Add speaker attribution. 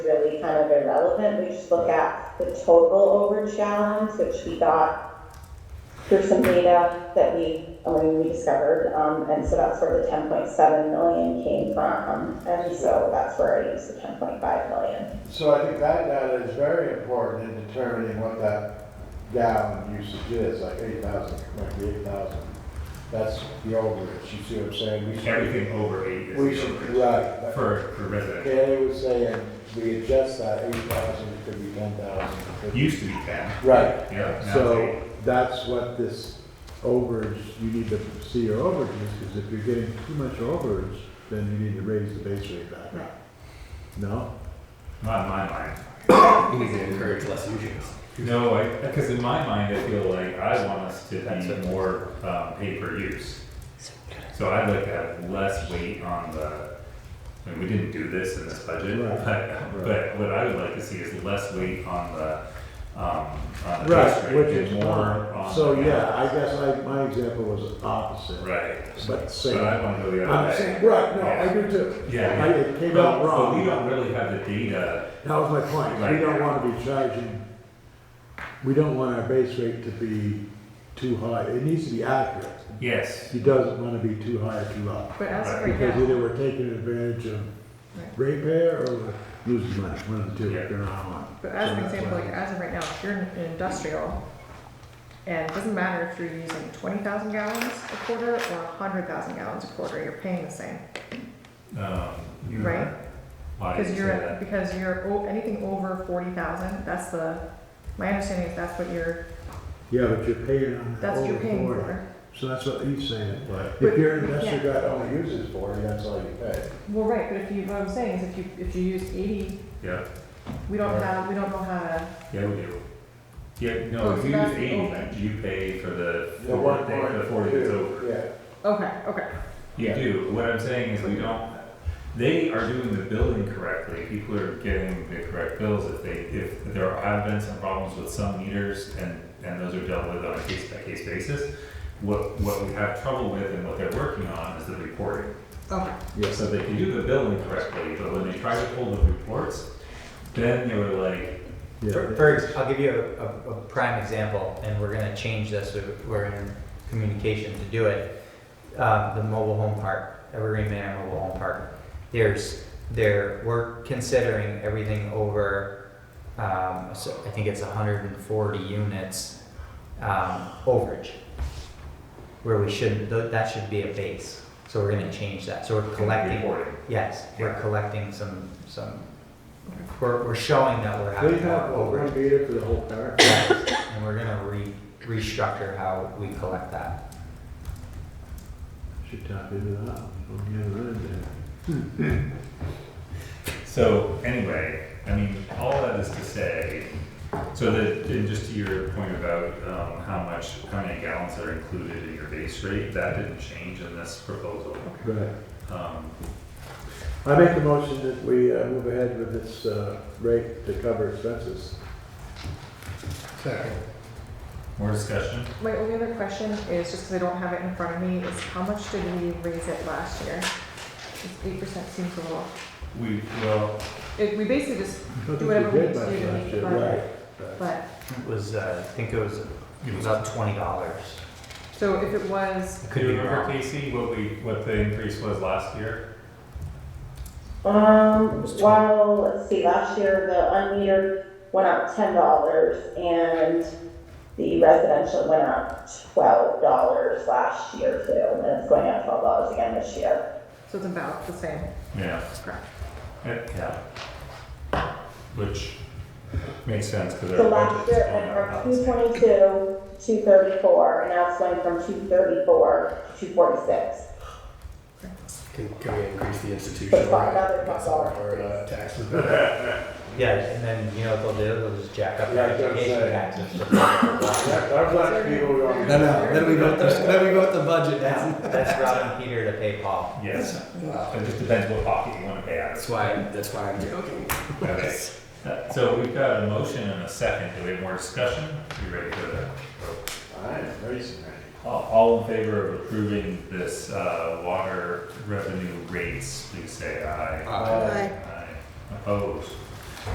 Speaker 1: kind of irrelevant, we just look at the total overage gallons, which we got through some data that we, I mean, we discovered, um, and so that's where the ten point seven million came from, and so that's where I used the ten point five million.
Speaker 2: So I think that data is very important in determining what that gallon usage is, like eight thousand, might be eight thousand. That's the overage, you see what I'm saying? We should-
Speaker 3: Everything over eight is.
Speaker 2: We
Speaker 3: the
Speaker 2: should,
Speaker 3: overage
Speaker 2: right.
Speaker 3: For, for residential.
Speaker 2: Kaylee was saying, we adjust that eight thousand, it could be ten thousand.
Speaker 3: Used to be ten.
Speaker 2: Right,
Speaker 3: Yeah. now it's
Speaker 2: so that's what this overage, you need to see your overages, because if you're getting too much overage, then you need to raise the base rate back up. No?
Speaker 3: eight. Not in my mind.
Speaker 4: You need to encourage less usage.
Speaker 3: No, I, because in my mind, I feel like I want us to
Speaker 4: That's
Speaker 3: be
Speaker 4: it.
Speaker 3: more, um, pay per use. So I'd like to have less weight on the, I mean, we didn't do this in this budget,
Speaker 2: Right.
Speaker 3: but, but what I would like to see is less weight on the, um, on the base
Speaker 2: Right,
Speaker 3: rate
Speaker 2: which
Speaker 3: and
Speaker 2: is
Speaker 3: more
Speaker 2: more,
Speaker 3: on.
Speaker 2: so
Speaker 3: the-
Speaker 2: yeah, I guess I, my example was opposite.
Speaker 3: Right.
Speaker 2: But same.
Speaker 3: But I wanna go the other
Speaker 2: I'm
Speaker 3: way.
Speaker 2: saying, right, no, I do too.
Speaker 3: Yeah.
Speaker 2: I- It came
Speaker 3: But-
Speaker 2: out
Speaker 3: But we don't
Speaker 2: wrong.
Speaker 3: really have the data
Speaker 2: That was my point, we
Speaker 3: Right.
Speaker 2: don't wanna be charging, we don't want our base rate to be too high, it needs to be accurate.
Speaker 3: Yes.
Speaker 2: He doesn't wanna be too high or too low.
Speaker 5: But as of right
Speaker 2: Because
Speaker 5: now,
Speaker 2: either we're taking advantage of
Speaker 5: Right.
Speaker 2: ratepayer or we're losing money, one of the two,
Speaker 3: Yeah.
Speaker 2: they're not on.
Speaker 5: but as an
Speaker 2: So that's
Speaker 5: example,
Speaker 2: why-
Speaker 5: like as of right now, if you're in in industrial, and it doesn't matter if you're using twenty thousand gallons a quarter or hundred thousand gallons a quarter, you're paying the same,
Speaker 3: Um,
Speaker 2: Mm-hmm.
Speaker 5: right?
Speaker 3: Why do you
Speaker 5: Because
Speaker 3: say
Speaker 5: you're,
Speaker 3: that?
Speaker 5: because you're, o- anything over forty thousand, that's the, my understanding is that's what you're,
Speaker 2: Yeah, but you're paying on the
Speaker 5: that's what you're paying
Speaker 2: over
Speaker 5: for.
Speaker 2: forty. So that's what he's saying. If
Speaker 5: But-
Speaker 2: your investor guy only uses forty, that's all you pay.
Speaker 5: Well, right, but if you, what I'm saying is if you, if you use eighty,
Speaker 3: Yeah,
Speaker 5: we don't
Speaker 2: Right.
Speaker 5: have, we don't know how to,
Speaker 3: yeah, we do. Yeah,
Speaker 5: Oh,
Speaker 3: no, if you
Speaker 5: so
Speaker 3: use
Speaker 5: that's
Speaker 3: eighty,
Speaker 5: over.
Speaker 3: you pay for the forty, day- for the forty that's over.
Speaker 2: Yeah.
Speaker 5: okay, okay,
Speaker 3: You do, what I'm saying is we don't, they are doing the billing correctly, people are getting the correct bills if they, if there have been some problems with some meters and, and those are dealt with on a case by case basis. What, what we have trouble with and what they're working on is the reporting.
Speaker 5: okay.
Speaker 3: So they can do the billing correctly, but when they try to pull the reports, then they were like,
Speaker 2: Yeah.
Speaker 4: For, for ex- I'll give you a, a, a prime example, and we're gonna change this, we- we're in communication to do it. Um, the mobile home park, Evergreen Manor Mobile Home Park, there's, there, we're considering everything over, um, so I think it's hundred and forty units, um, overage. Where we shouldn't, tho- that should be a base, so we're gonna change that, so we're collecting,
Speaker 3: reporting.
Speaker 4: yes, we're
Speaker 3: Yeah.
Speaker 4: collecting some, some,
Speaker 5: Okay.
Speaker 4: we're, we're showing that we're
Speaker 2: They
Speaker 4: having more
Speaker 2: have a
Speaker 4: overage.
Speaker 2: one meter for the whole park.
Speaker 4: And we're gonna re, restructure how we collect that.
Speaker 2: Should tap into that on the other end there.
Speaker 3: So anyway, I mean, all that is to say, so that, and just to your point about, um, how much, how many gallons are included in your base rate, that didn't change in this proposal.
Speaker 2: Right.
Speaker 3: Um,
Speaker 2: I make the motion that we uh, move ahead with this uh, rate to cover expenses. Second.
Speaker 3: more discussion?
Speaker 5: My only other question is, just because I don't have it in front of me, is how much did we raise it last year? Eight percent seems a little,
Speaker 3: We, well,
Speaker 5: it, we basically just,
Speaker 2: Do
Speaker 5: whatever we need to do to make the but,
Speaker 4: It was, uh, I think it was, it was about twenty dollars.
Speaker 5: so if it was,
Speaker 3: do you remember Casey, what we, what the increase was last year?
Speaker 1: Um,
Speaker 4: was
Speaker 1: well, let's see, last year the unmetered went up ten dollars and the residential went up twelve dollars last year too, and it's going up twelve dollars again this year.
Speaker 5: so it's about the same,
Speaker 3: Yeah.
Speaker 5: correct?
Speaker 3: Yeah. Which makes sense, cause
Speaker 1: So
Speaker 3: our
Speaker 1: last
Speaker 3: budget's
Speaker 1: year
Speaker 3: going
Speaker 1: it
Speaker 3: up.
Speaker 1: went from two twenty-two, two thirty-four, and now it's going from two thirty-four to two forty-six.
Speaker 6: Can, can we increase the institutional
Speaker 1: Five dollar, five dollar.
Speaker 6: or uh, taxes?
Speaker 4: Yeah, and then, you know, what they'll do, they'll just jack up
Speaker 2: Yeah,
Speaker 4: their
Speaker 2: I was gonna
Speaker 4: education
Speaker 2: say.
Speaker 4: taxes.
Speaker 2: That, our black people are on.
Speaker 6: No, no, then we go, then we go with the budget now.
Speaker 4: That's robbing Peter to pay Paul.
Speaker 3: Yes, it just depends what pocket you wanna pay out of.
Speaker 6: That's why, that's why I'm joking.
Speaker 3: Okay, Uh, so we've got a motion and a second, do we have more discussion? You ready for that?
Speaker 2: I'm racing ready.
Speaker 3: All, all in favor of approving this, uh, water revenue rates, please say aye.
Speaker 6: Uh,
Speaker 3: Aye. Opposed?